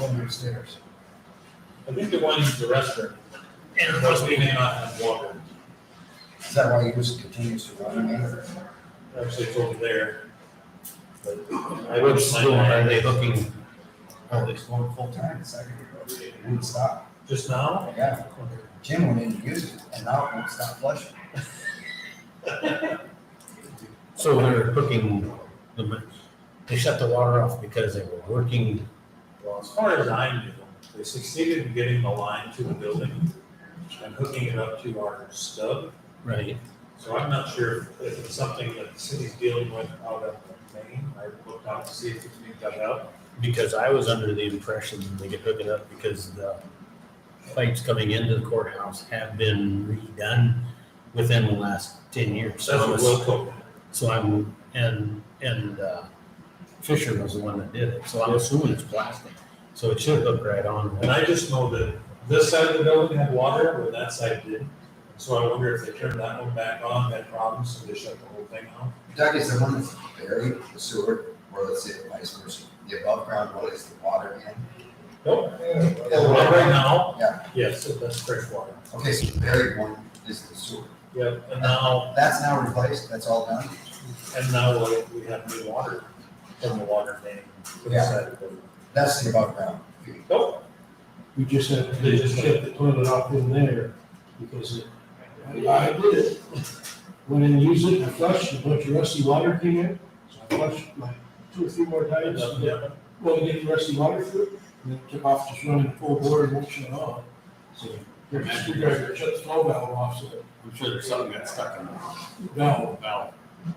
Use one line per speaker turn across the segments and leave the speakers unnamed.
one upstairs.
I think the one is the restroom. And of course, we may not have water.
Is that why yours continues to run?
Actually, it's over there. But I would
Which
plan
door are
on
they looking?
Oh, it's going full time, it's like, it wouldn't stop.
just now.
Yeah, Jim went in and used it, and now it won't stop flushing.
So they're cooking, the mi- they shut the water off because they were working.
Well, as far as I knew, they succeeded in getting the line to the building and hooking it up to our stub.
Right.
So I'm not sure if it's something that the city's dealing with out of Maine. I looked out to see if it's being dug out.
Because I was under the impression they could hook it up because the pipes coming into the courthouse have been redone within the last ten years.
So that's
So I'm-
what local.
So I'm, and, and uh, Fisher was the one that did it, so I'm assuming it's plastic. So it should hook right on.
And I just know that this side of the building had water, where that side didn't. So I wonder if they turned that one back on, had problems, so they shut the whole thing off.
Doug, is the one that's buried, the sewer, or let's say vice versa, the above ground one is the water in?
Nope.
well,
Right now?
Yeah.
Yes, it- that's fresh water.
Okay, so the buried one is the sewer.
Yep, and now,
That's now replaced, that's all done?
and now like, we have new water from the water main. to the
Yeah.
side of the building.
That's the above ground.
Nope,
We just have to, they just shut the toilet off in there because it- I I did it. Went in, and used it, I flushed, a bunch of rusty water came in, so I flushed like two or three more times.
nothing happened.
Well, we get the rusty water through it, and then took off just running full bore and won't shut off. So, they're just, they're shut the flow valve off, so
I'm sure there's something got stuck in
that valve,
valve.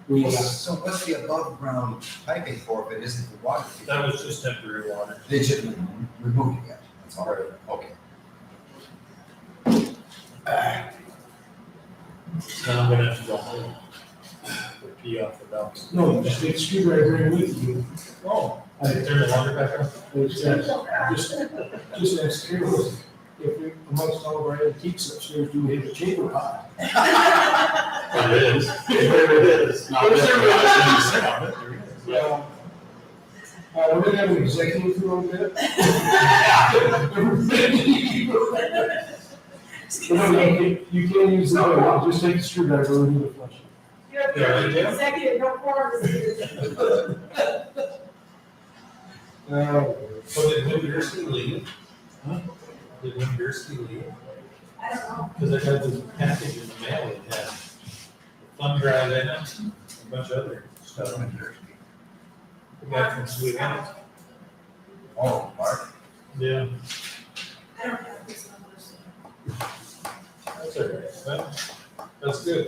we,
Well,
got-
So what's the above ground piping for if it isn't the water?
That was just temporary water.
They just removed it, that's all right, okay.
Now I'm gonna have to go home. Or Pee off the dump.
no, you just take a screwdriver in with you.
Oh.
I-
Turn the water back on.
It's, uh, just, just as curious, if we, amongst all of our antiques upstairs, do we have a chamber pot?
It is. It is.
Not that
Yeah. Uh, we're gonna have an executive for a little bit. No, no, you- you can't use the, toilet, just take a screwdriver and do the flush.
You're
Yeah, right there.
executive, no quorum.
Uh,
So did Wimberski leave?
Huh?
Did Wimberski leave?
I don't know.
Because I got this package in the mail that had thumb drive in it, and a bunch of other
That's
stuff.
what it is.
The guy from Sweden.
Oh, Mark,
Yeah.
I don't have this number. so-
That's all right. That- That's good.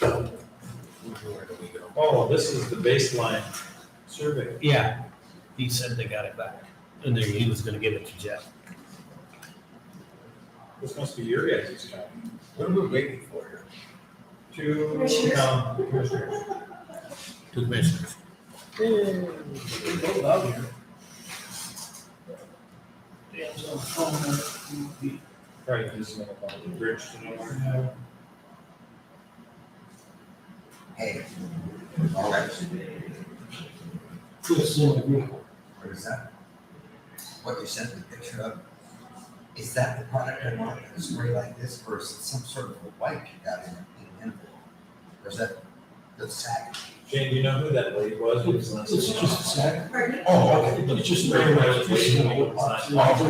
Where do we go?
Oh, this is the baseline survey.
Yeah, he said they got it back, and then he was gonna give it to Jeff.
This must be your guys' job.
what are we waiting for here?
Two,
Commissioners.
um, commissioners.
To the commissioners.
Uh,
Probably just gonna call it bridge to nowhere.
Hey, all right,
Just in the group.
what is that? What you sent the picture of, is that the product I want, a spray like this, or is it some sort of a wipe you got in in an envelope? Or is that the sack?
Jane, do you know who that lady was? who was last
It's
in
just a sack.
Pardon me?
Oh,
It's just very much. it's in the little box.
But the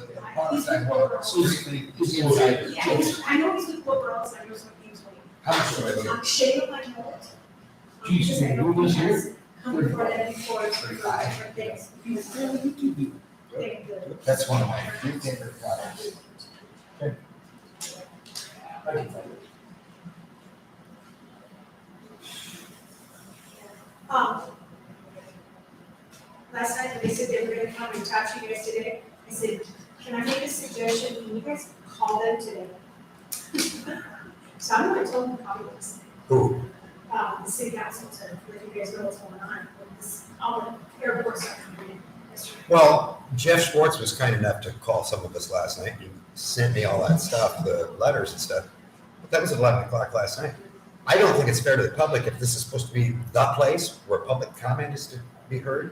the product I want, strictly
It's- it's-
inside the
Yeah, I just- I know he's with Cloveralls, I know he's with Kingsway.
How much do I owe?
I'm ashamed of my wallet. Um,
Geez,
because I
man,
know
what was
he
it?
has Come for it and for it for
Thirty-five.
different things. He was really big, the-
That's one of my three favorite products.
I can find it.
Um, Last night, when they said they were gonna come and talk to you guys today, I said, can I make a suggestion, can you guys call them today? So I'm gonna tell them how it looks.
Who?
Um, the city council to let you guys know what's going on, with this, all the airport stuff.
Well, Jeff Schwartz was kind enough to call some of us last night and sent me all that stuff, the letters and stuff. But that was eleven o'clock last night. I don't think it's fair to the public if this is supposed to be the place where public comment is to be heard.